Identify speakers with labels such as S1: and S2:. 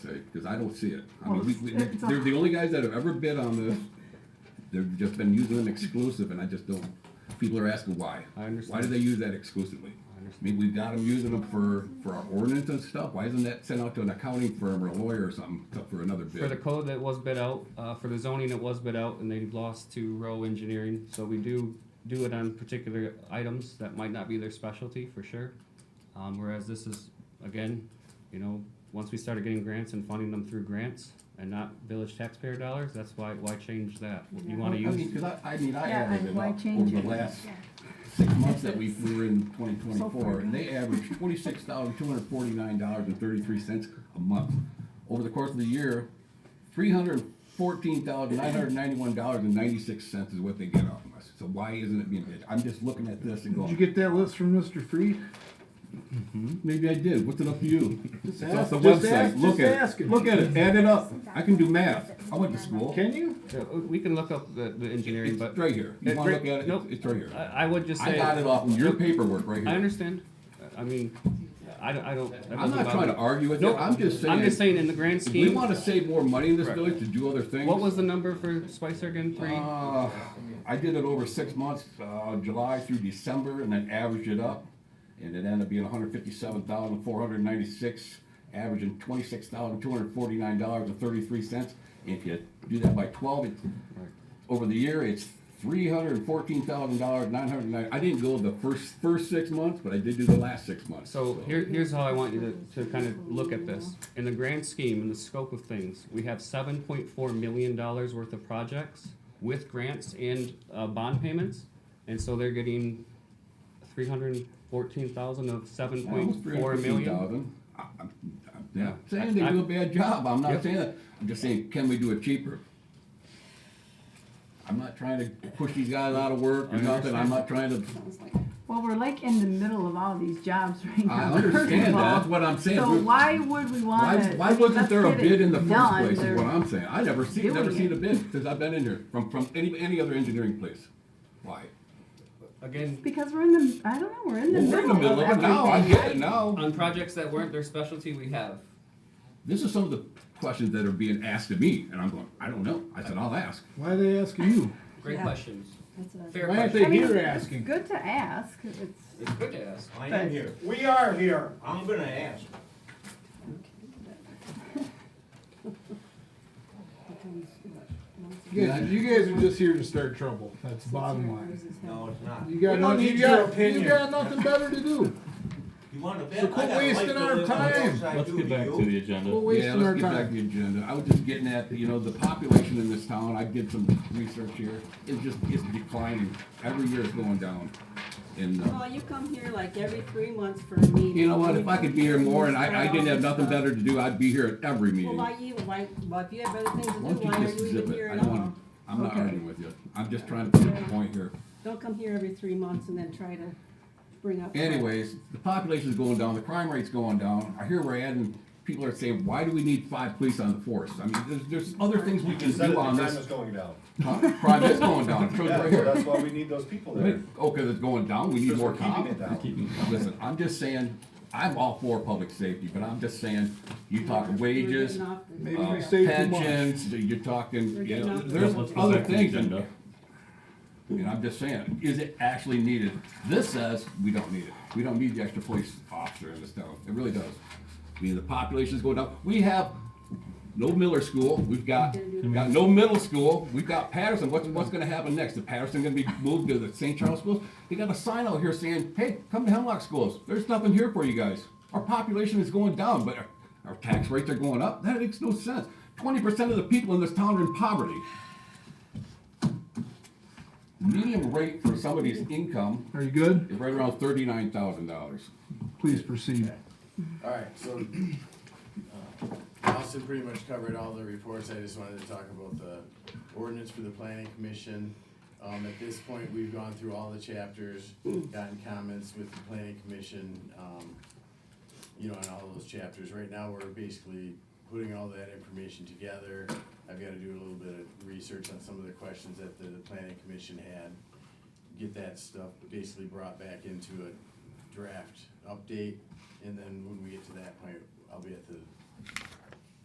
S1: because I don't see it. I
S2: Well,
S1: mean, we,
S2: it's-
S1: we,
S2: it's a-
S1: they're the only guys that have ever bid on this. They've just been using an exclusive, and I just don't. People are asking why.
S3: I understand.
S1: Why do they use that exclusively? I mean, we've got them using them for, for our ordinance and stuff. Why isn't that sent out to an accounting firm or a lawyer or something to- for another
S3: For the
S1: bid?
S3: code that was bid out, uh, for the zoning that was bid out, and they lost to Row Engineering, so we do do it on particular items that might not be their specialty, for sure. Um, whereas this is, again, you know, once we started getting grants and funding them through grants and not village taxpayer dollars, that's why, why change that? You wanna
S1: I mean,
S3: use,
S1: because I, I mean, I
S2: Yeah,
S1: added
S2: and
S1: it
S2: why
S1: up
S2: change
S1: over
S2: it?
S1: the last six months that we we were in twenty twenty-four, and they averaged twenty-six thousand two hundred forty-nine dollars and thirty-three cents a month. Over the course of the year, three hundred fourteen thousand nine hundred ninety-one dollars and ninety-six cents is what they get off of us. So why isn't it being paid? I'm just looking at this and
S4: Did you
S1: going,
S4: get that list from Mr. Freed?
S1: maybe I did, what's it up to you? It's off the
S4: Just ask-
S1: website, look
S4: just
S1: at
S4: ask
S1: it,
S4: him.
S1: look at it, add it up. I can do math, I went to school.
S4: Can you?
S3: Yeah, we can look up the, the engineering,
S1: It's
S3: but
S1: right here, you
S3: It-
S1: wanna look at it,
S3: nope.
S1: It's- it's right here.
S3: I, I would just
S1: I
S3: say,
S1: got it
S3: I
S1: off of your paperwork right here.
S3: understand, I mean, I don't, I don't. that
S1: I'm
S3: doesn't
S1: not
S3: bother
S1: trying to
S3: me.
S1: argue with you,
S3: Nope.
S1: I'm just saying.
S3: I'm just saying in the grand
S1: If
S3: scheme.
S1: we want to save more money in this
S3: Correct.
S1: village to do other things.
S3: What was the number for Spicer again? Three.
S1: Uh, I did it over six months, uh, July through December, and then averaged it up. And it ended up being hundred fifty-seven thousand, four hundred ninety-six, averaging twenty-six thousand, two hundred forty-nine dollars and thirty-three cents. If you do that by twelve, it's, over the year, it's three hundred and fourteen thousand dollars, nine hundred and nine. I didn't go the first, first six months, but I did do the last six months.
S3: so here, here's how I want you to, to kind of look at this. In the grand scheme, in the scope of things, we have seven point four million dollars worth of projects with grants and uh, bond payments, and so they're getting three hundred fourteen thousand of seven point
S1: Almost
S3: four million.
S1: 350,000. I- I'm I'm not
S3: Yeah.
S1: saying they do a bad job, I'm not
S3: Yep.
S1: saying that, I'm just saying, can we do it cheaper? I'm not trying to push these guys out of work or
S3: I
S1: nothing, I'm not trying to,
S2: Well, we're like in the middle of all these jobs right
S1: I
S2: now.
S1: understand that, that's what I'm saying.
S2: So
S1: We're-
S2: why would we
S1: Why,
S2: wanna? I
S1: why
S2: mean,
S1: wasn't
S2: let's
S1: there a
S2: get it
S1: bid in the first
S2: done.
S1: place, is
S2: There-
S1: what I'm saying, I never seen, never
S2: doing
S1: seen
S2: it.
S1: a bid since I've been in here, from, from any, any other engineering place, why?
S3: Again,
S2: Because we're in the, I don't know, we're in the
S1: Well, we're in the
S2: middle
S1: middle
S2: of
S1: of it now, I
S2: everything.
S1: get it now.
S3: on projects that weren't their specialty, we have.
S1: This is some of the questions that are being asked of me, and I'm going, I don't know, I said, I'll ask.
S4: Why are they asking you?
S3: Great
S5: Yeah.
S3: questions. Fair
S4: Why aren't
S3: questions.
S4: they
S2: I mean,
S4: here
S2: it's
S4: asking?
S2: Good to ask, it's,
S3: It's good to ask.
S6: I am here. We are here. I'm gonna ask.
S4: You guys, you guys are just here to start trouble. That's bottom line.
S6: No, it's not.
S4: You got,
S6: We don't
S4: nothing,
S6: need
S4: you,
S6: your
S4: got, you
S6: opinion.
S4: got nothing better to do.
S6: You want a bet?
S4: So quit
S6: I got a
S4: wasting
S6: life to
S4: our
S6: live on.
S4: time.
S6: Yes, I
S7: Let's
S6: do
S7: get back
S6: you.
S7: to the agenda.
S4: We're
S1: Yeah,
S4: wasting
S1: let's
S4: our
S1: get back to
S4: time.
S1: the agenda. I was just getting at, you know, the population in this town, I did some research here, it's just, it's declining. Every year it's going down. And, uh,
S5: Well, you come here like every three months for a meeting.
S1: you know what, if I could be here more and I, I didn't have nothing better to do, I'd be here at every
S5: Well,
S1: meeting.
S5: why
S1: Why
S5: you, why, well, if you have other things to do,
S1: don't
S5: why
S1: you
S5: are
S1: just
S5: you
S1: zip
S5: even
S1: it?
S5: here
S1: I
S5: at
S1: don't
S5: all?
S1: want, I'm not
S2: Okay.
S1: arguing with you. I'm just trying to prove a point here.
S5: Don't come here every three months and then try to bring up.
S1: Anyways, the population's going down, the crime rate's going down. I hear we're adding, people are saying, why do we need five police on the force? I mean, there's, there's other things we can
S8: Is that the
S1: do on
S8: time is
S1: this.
S8: going down?
S1: Huh? Crime is going down, shows
S8: Yeah,
S1: right
S8: so
S1: here.
S8: that's why we need those people
S1: Wait,
S8: there.
S1: Okay, that's going down, we need
S8: Because
S1: more
S8: we're keeping
S1: cops.
S8: it down.
S1: Keep- Listen, I'm just saying, I'm all for public safety, but I'm just saying, you talk wages,
S5: We're getting off the-
S4: Maybe
S1: uh,
S4: we say too much.
S1: pensions, you're talking, you know, there's
S7: Let's go back
S1: other
S7: to the
S1: things. in
S7: agenda.
S1: there. I mean, I'm just saying, is it actually needed? This says we don't need it. We don't need the extra police officer in this town. It really does. I mean, the population's going down. We have no Miller School. We've got, we've got no middle school. We've got Patterson. What's, what's gonna happen next? Is Patterson gonna be moved to the St. Charles schools? They got a sign out here saying, hey, come to Hemlock schools. There's nothing here for you guys. Our population is going down, but our, our tax rates are going up. That makes no sense. Twenty percent of the people in this town are in poverty. Median rate for somebody's income
S4: Are you good?
S1: is right around thirty-nine thousand dollars.
S4: Please proceed.
S9: Alright, so, uh, Austin pretty much covered all the reports, I just wanted to talk about the ordinance for the planning commission. Um, at this point, we've gone through all the chapters, gotten comments with the planning commission, um, you know, on all those chapters. Right now, we're basically putting all that information together. I've gotta do a little bit of research on some of the questions that the planning commission had. Get that stuff basically brought back into a draft update, and then when we get to that point, I'll be at the